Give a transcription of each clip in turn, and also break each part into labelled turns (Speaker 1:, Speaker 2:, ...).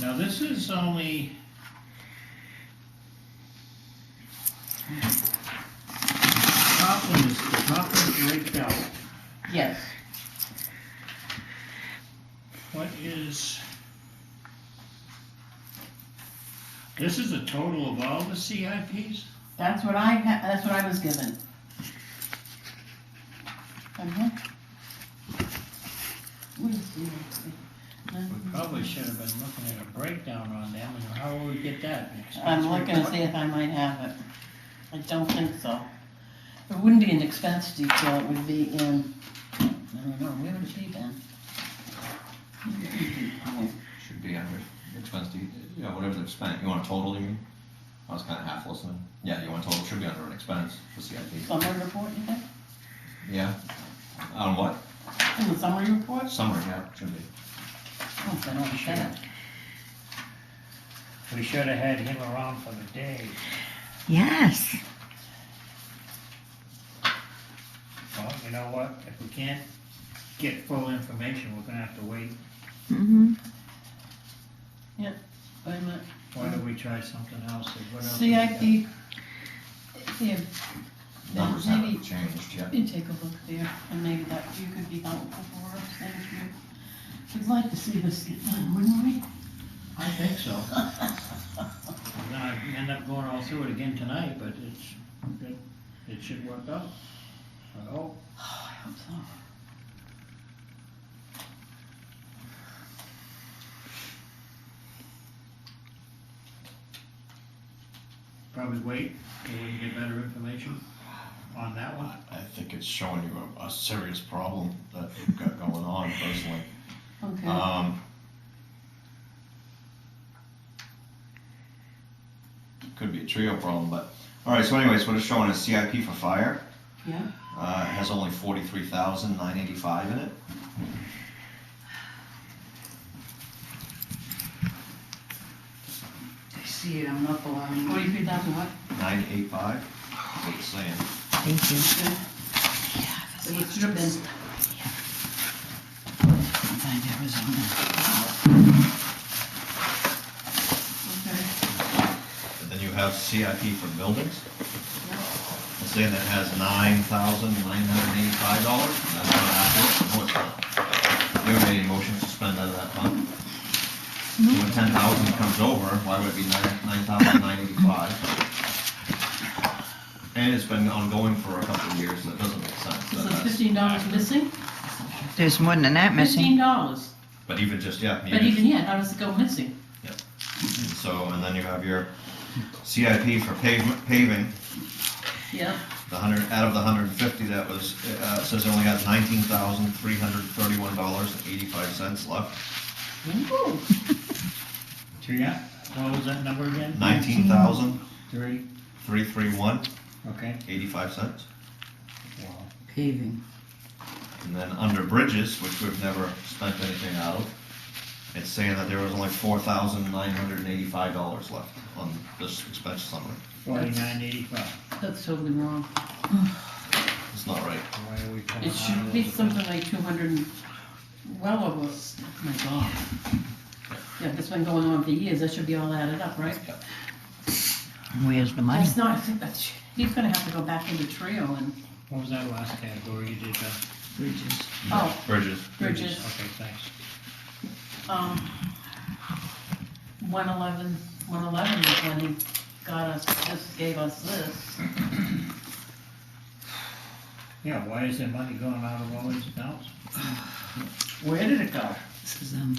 Speaker 1: Now, this is only. Top one is, the top one is raked out.
Speaker 2: Yes,
Speaker 1: What is? This is the total of all the CIPs?
Speaker 2: that's what I, ha- that's what I was given. Uh-huh. What is the-
Speaker 1: We probably should have been looking at a breakdown on them, and how will we get that next?
Speaker 2: I'm looking to see if I might have it. I don't think so. It wouldn't be an expense detail, it would be in, I don't know, where would it be then?
Speaker 3: Should be under expense to, you know, whatever they've spent, you want a total, you mean? I was kinda half listening, yeah, you want a total, should be under an expense for CIP,
Speaker 2: Summary report, you think?
Speaker 3: yeah. On what?
Speaker 2: In the summary report?
Speaker 3: Summary, yeah, should be.
Speaker 2: Oh, I don't have that.
Speaker 1: We should have had him around for the day.
Speaker 4: Yes.
Speaker 1: Well, you know what, if we can't get full information, we're gonna have to wait.
Speaker 4: Mm-hmm.
Speaker 2: Wait a minute.
Speaker 1: Why don't we try something else, or what else? we got?
Speaker 2: CIP, here,
Speaker 3: Numbers haven't
Speaker 2: maybe-
Speaker 3: changed yet.
Speaker 2: you take a look there, and maybe that, you could be helpful for us, thank you. We'd like to see this get done, wouldn't we? Oh,
Speaker 1: I think so. Now, I end up going all through it again tonight, but it's, it, it should work out. I hope.
Speaker 2: Oh, I hope so.
Speaker 1: probably wait till we can get better information on that one.
Speaker 3: I think it's showing you a, a serious problem that you've got going on personally.
Speaker 2: Okay,
Speaker 3: Um. Could be a trio problem, but, alright, so anyways, what it's showing is CIP for fire.
Speaker 2: yeah,
Speaker 3: Uh, it has only forty-three thousand nine eighty-five in it.
Speaker 5: I see it, I'm up a lot.
Speaker 2: forty-three thousand what?
Speaker 3: Nine eight five, what it's saying.
Speaker 4: Thank you.
Speaker 2: Okay. So it should have been.
Speaker 4: Find Arizona.
Speaker 2: Okay.
Speaker 3: And then you have CIP for buildings. It's saying that has nine thousand nine hundred eighty-five dollars. That's not accurate. No, it's not. You haven't made any motion to spend out of that fund. So When ten thousand comes over, why would it be nine, nine thousand nine eighty-five? And it's been ongoing for a couple of years, so it doesn't make sense.
Speaker 2: So
Speaker 3: that
Speaker 2: it's
Speaker 3: that's-
Speaker 2: fifteen dollars missing?
Speaker 4: There's more than that
Speaker 2: Fifteen
Speaker 4: missing.
Speaker 2: dollars,
Speaker 3: But even just, yeah.
Speaker 2: but even yet, how does it go missing?
Speaker 3: So, and then you have your CIP for pavement, paving,
Speaker 2: Yeah,
Speaker 3: the hundred, out of the hundred and fifty, that was, uh, it says it only has nineteen thousand, three hundred thirty-one dollars and eighty-five cents left.
Speaker 2: Ooh,
Speaker 1: So yeah, what was that number again?
Speaker 3: Nineteen thousand,
Speaker 1: Three,
Speaker 3: three, three, one,
Speaker 1: okay.
Speaker 3: eighty-five cents.
Speaker 1: Wow.
Speaker 4: Paving.
Speaker 3: And then under bridges, which we've never spent anything out of, it's saying that there was only four thousand, nine hundred and eighty-five dollars left on this expense summary.
Speaker 1: Forty-nine eighty-five.
Speaker 2: that's totally wrong.
Speaker 3: It's not right.
Speaker 1: Why are we coming
Speaker 2: It should be something like two hundred and, well over, s- my God. Yeah, that's been going on for years, that should be all added up, right?
Speaker 4: Where's the money?
Speaker 2: That's not, I think that's, he's gonna have to go back into Trio and,
Speaker 1: What was that last category you did, uh,
Speaker 4: Bridges.
Speaker 2: oh,
Speaker 3: Bridges.
Speaker 2: Bridges,
Speaker 1: okay, thanks.
Speaker 2: um, one eleven, one eleven is when he got us, just gave us this.
Speaker 1: Yeah, why is there money going out of all these accounts?
Speaker 2: Where did it go?
Speaker 4: This is, um,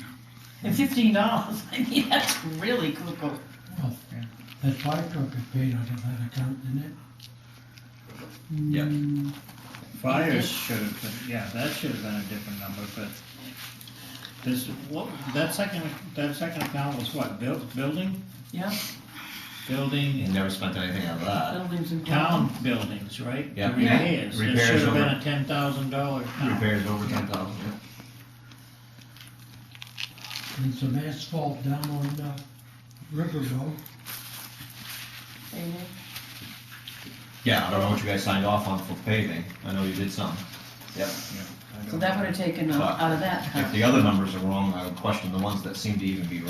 Speaker 2: And fifteen dollars, I mean, that's really cuckoo.
Speaker 6: That fire truck is paid out of that account, isn't it?
Speaker 3: Yeah.
Speaker 1: Fires should have been, yeah, that should have been a different number, but this, what, that second, that second account was what, buil- building?
Speaker 2: Yeah,
Speaker 3: You
Speaker 1: Building,
Speaker 3: never spent anything out of that.
Speaker 2: buildings and.
Speaker 1: town buildings, right?
Speaker 3: Yeah.
Speaker 1: The Repairs, there
Speaker 3: Repairs
Speaker 1: should have been
Speaker 3: over-
Speaker 1: a ten thousand dollar account.
Speaker 3: Repairs over ten thousand, yeah.
Speaker 6: And some asphalt down on, uh, River Road.
Speaker 2: Amen.
Speaker 3: Yeah, I don't know what you guys signed off on for paving, I know you did some. Yep.
Speaker 2: So that would have taken uh, out of that.
Speaker 3: If the other numbers are wrong, I would question the ones that seem to even be